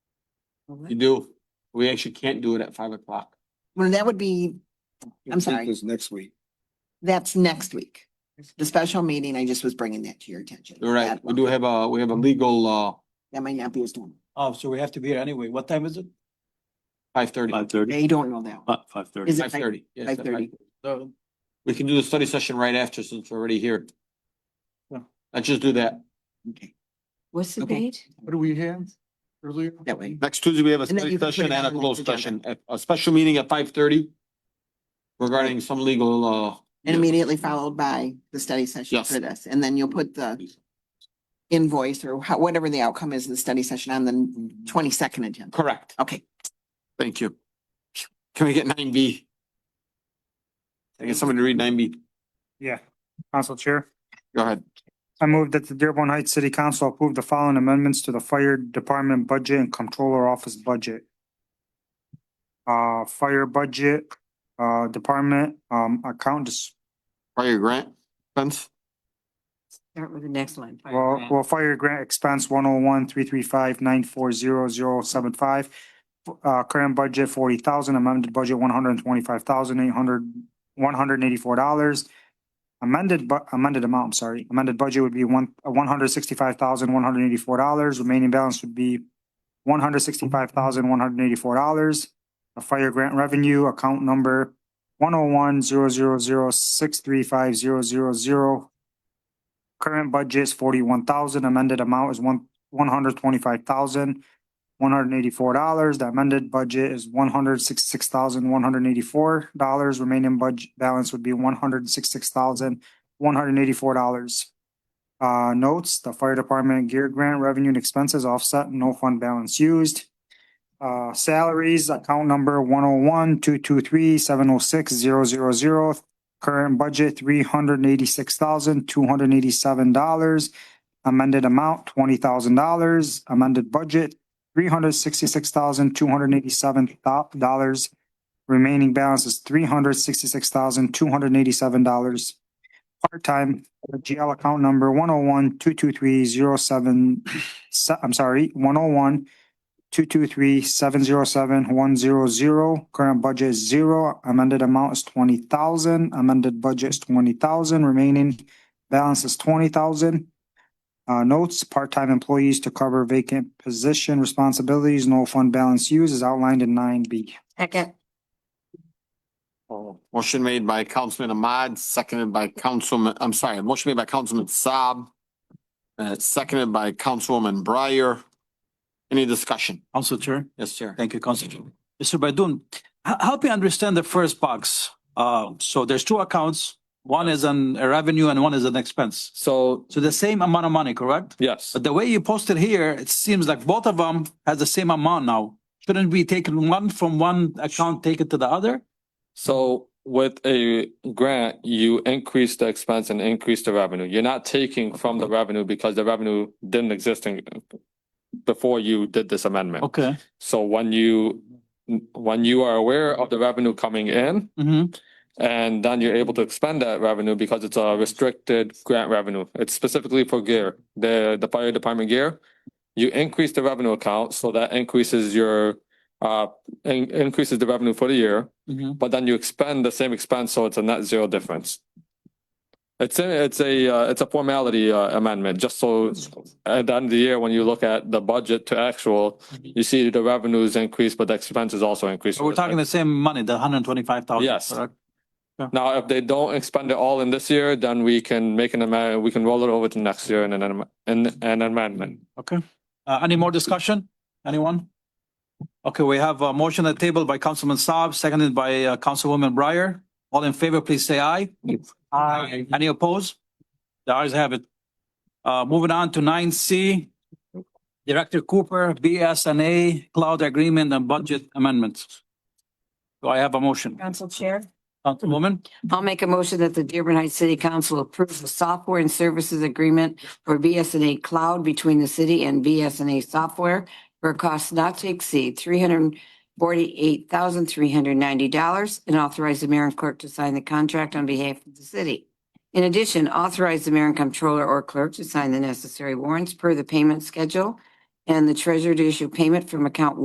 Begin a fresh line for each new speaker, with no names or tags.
You do, we actually can't do it at five o'clock.
Well, that would be, I'm sorry.
It's next week.
that's next week. The special meeting, I just was bringing that to your attention.
You're right, we do have a, we have a legal, uh,
That might not be as long.
Oh, so we have to be here anyway. What time is it?
five thirty.
Five thirty,
They don't know
Uh,
that. one.
five
Is
thirty.
it
Five thirty.
Five thirty.
So,
We can do the study session right after since we're already here.
Yeah.
Let's just do that.
Okay,
What's the
Okay.
date?
what do we have earlier?
that way.
Next Tuesday, we have a
And then
study
you can put
session
it
and a
on the
closed
agenda.
session, a- a special meeting at five thirty regarding some legal, uh,
And immediately followed by the study session
Yes.
for this. And then you'll put the invoice or how, whatever the outcome is of the study session on the twenty-second agenda.
correct.
Okay,
Thank you. Can we get nine B? Can I get somebody to read nine B?
Yeah, Council Chair.
Go ahead.
I move that the Dearborn Heights City Council approve the following amendments to the Fire Department budget and Controller Office budget. Uh, fire budget, uh, department, um, account, dis-
Prior grant, Spence?
Start with the next line. fire
well,
grant.
well, fire grant expense one oh one three three five nine four zero zero seven five. Uh, current budget forty thousand, amended budget one hundred and twenty-five thousand eight hundred, one hundred and eighty-four dollars. Amended bu- amended amount, I'm sorry, amended budget would be one, one hundred sixty-five thousand one hundred eighty-four dollars, remaining balance would be one hundred sixty-five thousand one hundred eighty-four dollars. A fire grant revenue account number one oh one zero zero zero six three five zero zero zero Current budget is forty-one thousand, amended amount is one, one hundred twenty-five thousand, one hundred eighty-four dollars. The amended budget is one hundred sixty-six thousand, one hundred eighty-four dollars. Remaining budget balance would be one hundred sixty-six thousand, one hundred eighty-four dollars. Uh, notes, the fire department gear grant revenue and expenses offset, no fund balance used. Uh, salaries, account number one oh one, two two three, seven oh six, zero zero zero, Current budget, three hundred and eighty-six thousand, two hundred and eighty-seven dollars. Amended amount, twenty thousand dollars. Amended budget, three hundred sixty-six thousand, two hundred and eighty-seven dollars. Remaining balance is three hundred sixty-six thousand, two hundred and eighty-seven dollars. Part-time, GL account number one oh one, two two three, zero seven, I'm sorry, one oh one, two two three, seven zero seven, one zero zero. Current budget is zero. Amended amount is twenty thousand. Amended budget is twenty thousand. Remaining balance is twenty thousand. Uh, notes, part-time employees to cover vacant position responsibilities, no fund balance used is outlined in nine B.
Second,
Oh. Motion made by Councilman Ahmad, seconded by Councilman, I'm sorry, motion made by Councilman Saab. Uh, seconded by Councilwoman Breyer. Any discussion?
Council Chair,
Yes, sir.
thank you, Council Chair. Mr. Baydun, h- help me understand the first box. Uh, so there's two accounts. One is an a revenue and one is an expense.
So,
So the same amount of money, correct?
yes,
But the way you posted here, it seems like both of them has the same amount now. Shouldn't we take one from one account, take it to the other?
so with a grant, you increase the expense and increase the revenue. You're not taking from the revenue because the revenue didn't exist in before you did this amendment.
Okay.
So when you, when you are aware of the revenue coming in
Mm-hmm.
and then you're able to expend that revenue because it's a restricted grant revenue. It's specifically for gear, the, the fire department gear. You increase the revenue account, so that increases your, uh, in- increases the revenue for the year.
Mm-hmm.
but then you expend the same expense, so it's a net zero difference. It's a, it's a, uh, it's a formality uh, amendment, just so at the end of the year, when you look at the budget to actual, you see the revenues increase, but the expenses also increase.
So we're talking the same money, the hundred and twenty-five thousand.
Yes. Now, if they don't expend it all in this year, then we can make an amendment, we can roll it over to next year in an, am- in an amendment.
Okay. Uh, any more discussion? Anyone? Okay, we have a motion at table by Councilman Saab, seconded by uh, Councilwoman Breyer. All in favor, please say aye. Aye. Any opposed? The ayes have it. Uh, moving on to nine C. Director Cooper, BSNA Cloud Agreement and Budget Amendments. Do I have a motion?
Council Chair.
Councilwoman?
I'll make a motion that the Dearborn Heights City Council approves the software and services agreement for BSNA Cloud between the city and BSNA Software for a cost not to exceed three hundred forty-eight thousand, three hundred ninety dollars and authorize the mayor and clerk to sign the contract on behalf of the city. In addition, authorize the mayor and comptroller or clerk to sign the necessary warrants per the payment schedule and the treasurer to issue payment from account